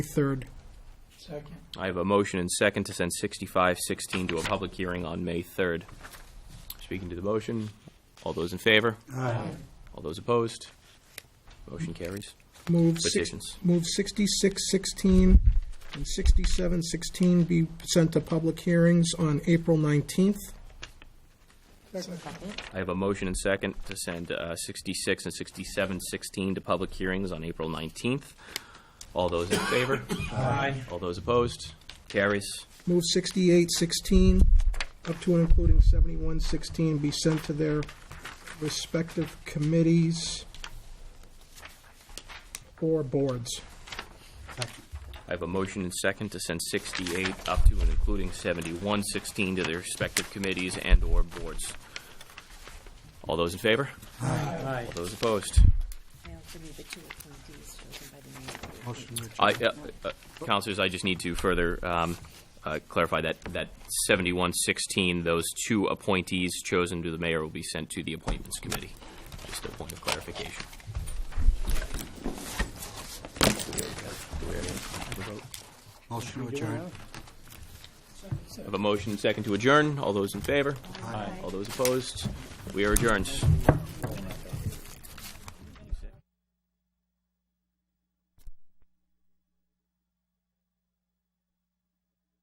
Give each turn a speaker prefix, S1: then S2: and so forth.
S1: 3rd.
S2: Second.
S3: I have a motion and second to send 6516 to a public hearing on May 3rd. Speaking to the motion, all those in favor? All those opposed? Motion carries.
S1: Move six,
S3: Petitions.
S1: move 6616 and 6716 be sent to public hearings on April 19th.
S3: I have a motion and second to send uh, 66 and 6716 to public hearings on April 19th. All those in favor?
S2: Aye.
S3: All those opposed? Carries.
S1: Move 6816 up to and including 7116 be sent to their respective committees or boards.
S3: I have a motion and second to send 68 up to and including 7116 to their respective committees and/or boards. All those in favor?
S2: Aye.
S3: All those opposed?
S4: I also need the two appointees chosen by the mayor.
S3: I, uh, uh, Counselors, I just need to further um, uh, clarify that, that 7116, those two appointees chosen to the mayor will be sent to the Appointments Committee. Just a point of clarification.
S5: Motion to adjourn.
S3: I have a motion and second to adjourn. All those in favor? Aye. All those opposed? We are adjourned.